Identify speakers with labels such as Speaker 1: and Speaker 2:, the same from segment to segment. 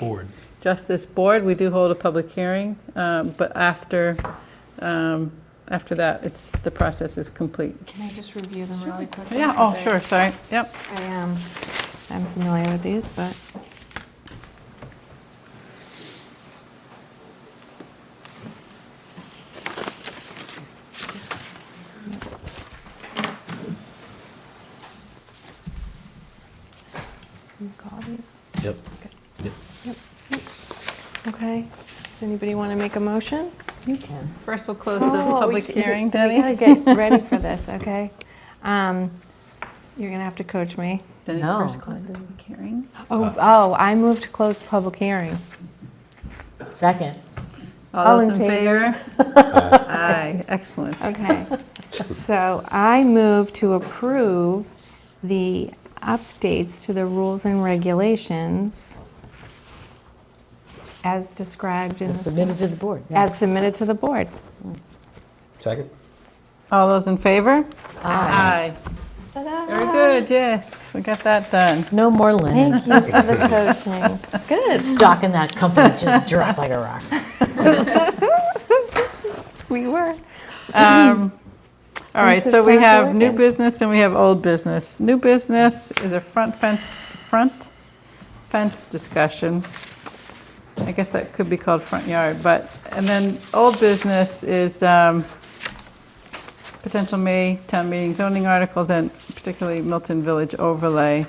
Speaker 1: board.
Speaker 2: Justice Board, we do hold a public hearing, um, but after, um, after that, it's, the process is complete.
Speaker 3: Can I just review them really quickly?
Speaker 2: Yeah, oh,
Speaker 3: Because I-
Speaker 2: sure, sorry, yep.
Speaker 3: I am, I'm familiar with these, but. You call these?
Speaker 4: Yep.
Speaker 3: Yep. yep. Okay, does anybody want to make a motion?
Speaker 4: You can.
Speaker 2: First, we'll close the
Speaker 3: Oh, we
Speaker 2: public
Speaker 3: should- we-
Speaker 2: hearing,
Speaker 3: We
Speaker 2: Denny.
Speaker 3: gotta get ready for this, okay? Um, You're gonna have to coach me.
Speaker 2: Denny,
Speaker 4: No.
Speaker 2: first close the public hearing.
Speaker 3: Oh, oh, I moved to close the public hearing.
Speaker 4: Second.
Speaker 2: All
Speaker 3: All
Speaker 2: those in
Speaker 3: in
Speaker 2: favor? Aye, excellent.
Speaker 3: Okay. So I move to approve the updates to the rules and regulations as described in,
Speaker 4: It's submitted to the board. yeah.
Speaker 3: as submitted to the board.
Speaker 5: Second?
Speaker 2: All those in favor?
Speaker 4: Aye.
Speaker 2: Aye. Very good, yes, we got that done.
Speaker 4: No more linen.
Speaker 3: Thank you for the coaching. Good.
Speaker 4: Stock in that company just dropped like a rock.
Speaker 3: We were.
Speaker 2: Um, All right, so we
Speaker 3: Expensive time
Speaker 2: have new
Speaker 3: working.
Speaker 2: business and we have old business. New business is a front fence, front fence discussion. I guess that could be called front yard, but, and then old business is um, potential May town meeting zoning articles and particularly Milton Village overlay.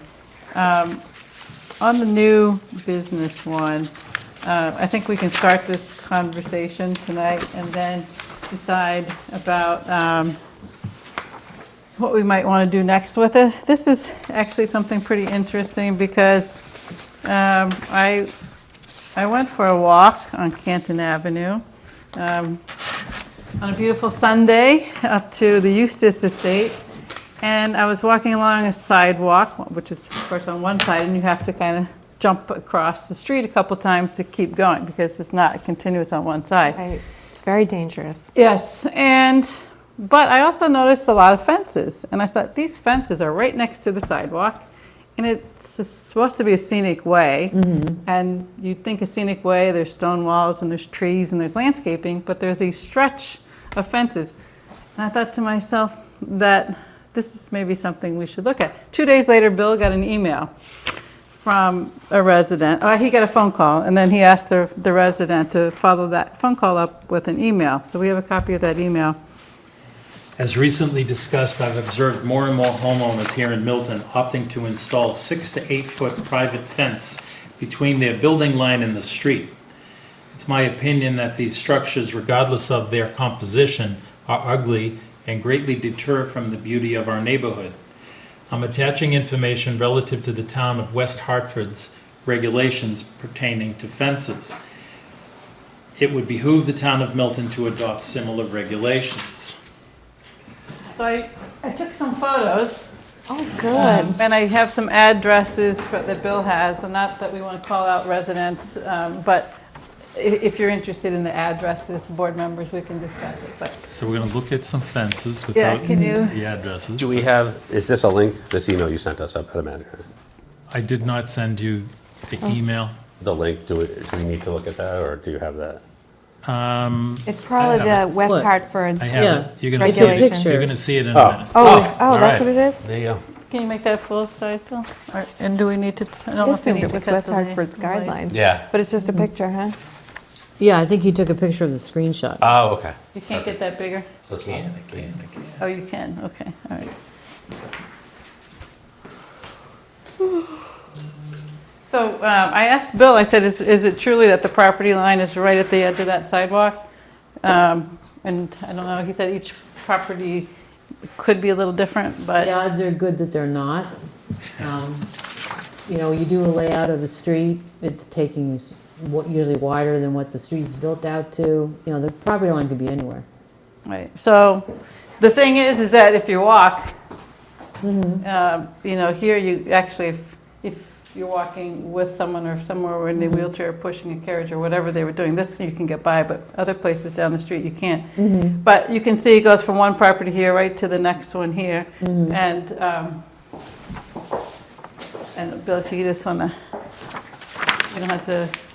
Speaker 2: Um, On the new business one, uh, I think we can start this conversation tonight and then decide about um, what we might want to do next with it. This is actually something pretty interesting because um, I, I went for a walk on Canton Avenue um, on a beautiful Sunday up to the Eustis Estate. And I was walking along a sidewalk, which is, of course, on one side, and you have to kind of jump across the street a couple times to keep going because it's not continuous on one side.
Speaker 3: I- It's very dangerous.
Speaker 2: Yes, and, but I also noticed a lot of fences, and I thought, these fences are right next to the sidewalk, and it's s- supposed to be a scenic way, and you'd think a scenic way, there's stone walls, and there's trees, and there's landscaping, but there's these stretch of fences. And I thought to myself that this is maybe something we should look at. Two days later, Bill got an email from a resident, uh, he got a phone call, and then he asked the, the resident to follow that phone call up with an email. So we have a copy of that email.
Speaker 6: As recently discussed, I've observed more and more homeowners here in Milton opting to install six to eight-foot private fence between their building line and the street. It's my opinion that these structures, regardless of their composition, are ugly and greatly deter from the beauty of our neighborhood. I'm attaching information relative to the town of West Hartford's regulations pertaining to fences. It would behoove the town of Milton to adopt similar regulations.
Speaker 2: So I, I took some photos, um,
Speaker 3: Oh, good.
Speaker 2: and I have some addresses for- that Bill has, and not that we want to call out residents, um, but i- if you're interested in the addresses, board members, we can discuss it, but.
Speaker 6: So we're gonna look at some fences
Speaker 2: Yeah,
Speaker 6: without
Speaker 2: can you-
Speaker 6: the addresses.
Speaker 5: Do we have, is this a link, this email you sent us, I would imagine?
Speaker 6: I did not send you the email.
Speaker 5: The link, do we, do we need to look at that, or do you have that?
Speaker 6: Um,
Speaker 3: It's probably the West
Speaker 4: What?
Speaker 3: Hartford's.
Speaker 6: I
Speaker 4: Yeah.
Speaker 6: have it. You're gonna see
Speaker 3: Regulation.
Speaker 6: it. You're gonna see it in a
Speaker 5: Oh.
Speaker 6: minute.
Speaker 3: Oh, oh,
Speaker 5: all
Speaker 3: that's
Speaker 5: right.
Speaker 3: what it is?
Speaker 5: There you go.
Speaker 2: Can you make that full size, Bill? Or- And do we need to, I don't
Speaker 3: I
Speaker 2: know if we
Speaker 3: assumed
Speaker 2: need to
Speaker 3: it was
Speaker 2: cut
Speaker 3: West
Speaker 2: the la-
Speaker 3: Hartford's
Speaker 2: the lights.
Speaker 3: guidelines.
Speaker 5: Yeah.
Speaker 3: But it's just a picture, huh?
Speaker 4: Yeah, I think you took a picture of the screenshot.
Speaker 5: Oh, okay.
Speaker 2: You can't get that bigger?
Speaker 5: So it's not-
Speaker 2: Oh, you can, okay, all right. So um, I asked Bill, I said, is is it truly that the property line is right at the edge of that sidewalk? Um, And I don't know, he said each property could be a little different, but,
Speaker 4: The odds are good that they're not. Um, You know, you do a layout of a street, it taking is wa- usually wider than what the street's built out to. You know, the property line could be anywhere.
Speaker 2: right. So the thing is, is that if you walk, um, you know, here you, actually, if- if you're walking with someone or if someone were in a wheelchair pushing a carriage or whatever they were doing, this you can get by, but other places down the street, you can't. But you can see it goes from one property here right to the next one here. And, um, and Bill, if you just want to, you You don't have to